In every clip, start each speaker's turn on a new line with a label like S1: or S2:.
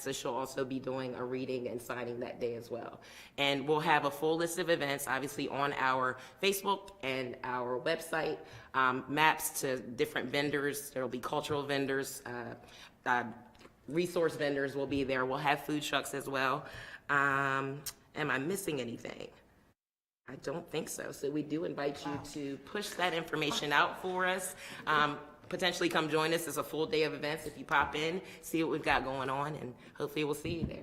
S1: so she'll also be doing a reading and signing that day as well. And we'll have a full list of events, obviously, on our Facebook and our website, um, maps to different vendors. There'll be cultural vendors, uh, uh, resource vendors will be there. We'll have food trucks as well. Um, am I missing anything? I don't think so. So we do invite you to push that information out for us. Um, potentially come join us. It's a full day of events. If you pop in, see what we've got going on and hopefully we'll see you there.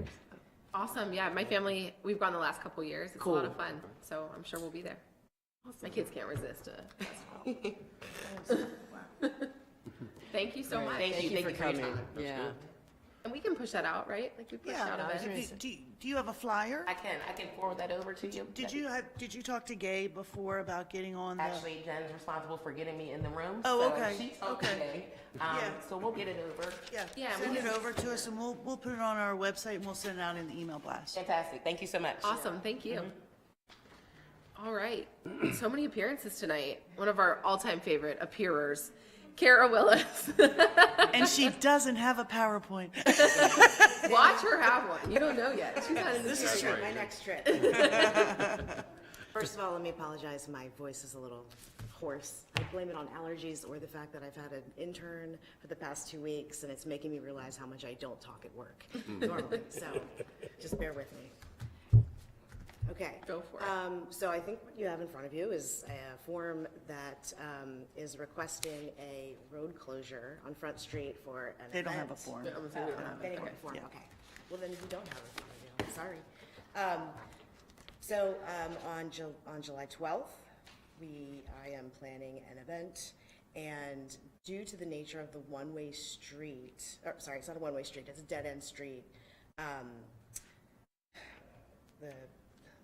S2: Awesome. Yeah, my family, we've gone the last couple years. It's a lot of
S1: Cool.
S2: fun. So I'm sure we'll be there. My kids can't resist. A festival. Thank you so much.
S1: Thank you, thank you for your time.
S3: Yeah.
S2: And we can push that out, right? Like we pushed out
S3: I was
S2: events.
S3: gonna
S4: Do, do, do you have a flyer?
S1: I can, I can forward that over to you.
S4: Did you have, did you talk to Gabe before about getting on the?
S1: Actually, Jen's responsible for getting me in the room.
S4: Oh,
S1: so
S4: okay,
S1: she told me
S4: okay.
S1: today. Um,
S4: Yeah.
S1: so we'll get it over.
S2: Yeah,
S4: Yeah,
S2: we
S4: send it
S2: can-
S4: over to us and we'll, we'll put it on our website and we'll send it out in the email blast.
S1: Fantastic. Thank you so much.
S2: Awesome. Thank you.
S1: Mm-hmm.
S2: All right. So many appearances tonight. One of our all-time favorite appearers, Kara Willis.
S4: And she doesn't have a PowerPoint.
S2: Watch her have one. You don't know yet. She's not in the
S5: This is
S2: area.
S5: my next trip. First of all, let me apologize, my voice is a little hoarse. I blame it on allergies or the fact that I've had an intern for the past two weeks, and it's making me realize how much I don't talk at work normally, so just bear with me. Okay.
S2: Go for it.
S5: Um, So I think what you have in front of you is a form that um, is requesting a road closure on Front Street for an event.
S4: They don't have a form.
S5: Oh, They don't have a form, okay. Well, then you don't have a form, you know, sorry. Um, So um, on Ju- on July 12th, we, I am planning an event, and due to the nature of the one-way street, or, sorry, it's not a one-way street, it's a dead-end street, um, the,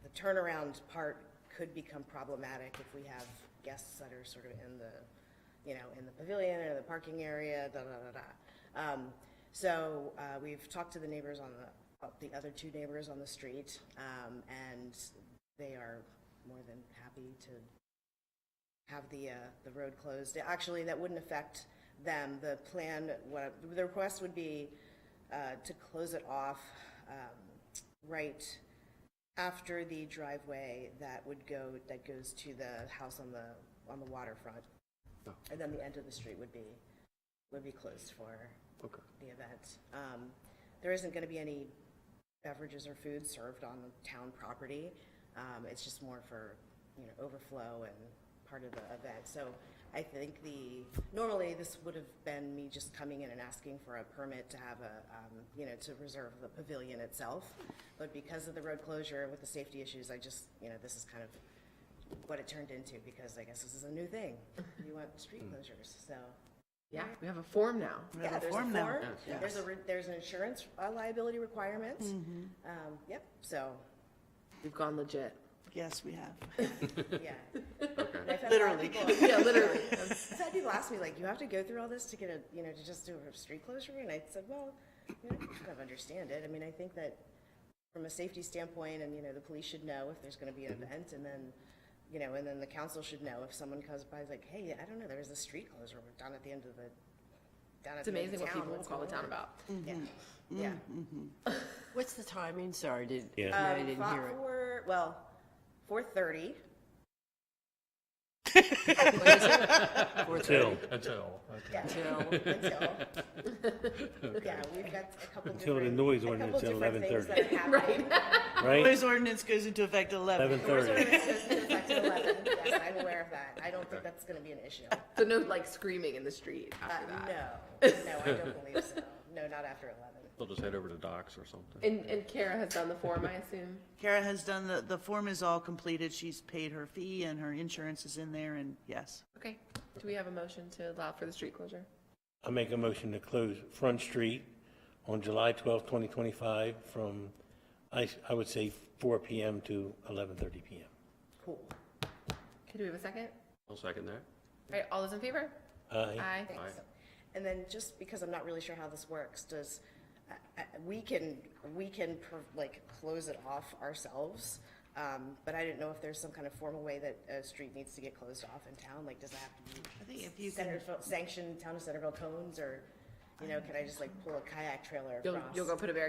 S5: the turnaround part could become problematic if we have guests that are sort of in the, you know, in the pavilion or the parking area, da, da, da, da. Um, so, uh, we've talked to the neighbors on the, uh, the other two neighbors on the street, um, and they are more than happy to have the, uh, the road closed. Actually, that wouldn't affect them. The plan, what, the request would be, uh, to close it off, um, right after the driveway that would go, that goes to the house on the, on the waterfront. And then the end of the street would be, would be closed for the event. Um, there isn't gonna be any beverages or food served on town property. Um, it's just more for, you know, overflow and part of the event. So I think the, normally this would have been me just coming in and asking for a permit to have a, um, you know, to reserve the pavilion itself. But because of the road closure with the safety issues, I just, you know, this is kind of what it turned into because I guess this is a new thing. You want street closures, so.
S2: Yeah, we have a form now.
S4: We have
S5: Yeah,
S4: a
S5: there's a
S4: form now.
S5: form,
S4: Yes. Mm-hmm.
S5: there's a, re- there's an insurance uh, liability requirement. Um, Yep, so,
S2: We've gone legit.
S4: Yes, we have.
S5: yeah. And I've had a lot of
S4: Literally.
S5: people-
S2: Yeah, literally.
S5: I've had people ask me, like, you have to go through all this to get a, you know, to just do a street closure? And I said, well, you know, I kind of understand it. I mean, I think that from a safety standpoint, and, you know, the police should know if there's going to be an
S4: Mm-hmm.
S5: event, and then, you know, and then the council should know if someone comes by, is like, hey, I don't know, there was a street closure down at the end of the, down at
S2: It's
S5: the end of
S2: amazing
S5: town.
S2: what people will
S5: What's
S2: call the
S5: going
S2: town
S5: on?"
S2: about.
S5: Yeah,
S4: Mm-hmm.
S5: yeah.
S3: What's the timing? Sorry, did,
S6: Yeah.
S3: no, I didn't
S5: Fought
S3: hear it.
S5: for- well, four thirty.
S6: Till.
S7: Until, okay.
S5: Yeah. Until. Yeah, we've got a couple
S6: Until the
S5: different-
S6: noise
S5: a
S6: ordinance
S5: couple
S6: at
S5: different things that are happening.
S6: right?
S4: Noise ordinance goes into effect eleven.
S6: 11:30.
S5: Noise ordinance goes into effect at 11. Yes, I'm aware of that. I don't think that's gonna be an issue. Uh,
S2: So no like screaming in the street Uh, after
S5: no,
S2: that.
S5: no, I don't believe so. No, not after eleven.
S7: They'll just head over to docks or something.
S2: And, and Kara has done the form, I assume.
S4: Kara has done the, the form is all completed. She's paid her fee and her insurance is in there and yes.
S2: Okay. Do we have a motion to allow for the street closure?
S6: I make a motion to close Front Street on July twelfth, twenty twenty-five, from, I, I would say four PM to eleven thirty PM.
S5: Cool.
S2: Okay, do we have a second?
S7: I'll second that.
S2: All right, all those in favor?
S6: Aye.
S2: Aye.
S7: Aye.
S5: And then just because I'm not really sure how this works, does, I- I- we can, we can per- like close it off ourselves. Um, But I didn't know if there's some kind of formal way that a street needs to get closed off in town, like does it have to be?
S4: I think if you can- Um,
S5: Centerville, sanctioned town of Centerville cones or, you know, can I just like pull a kayak trailer
S2: You'll,
S5: across?
S2: you'll go put a barricade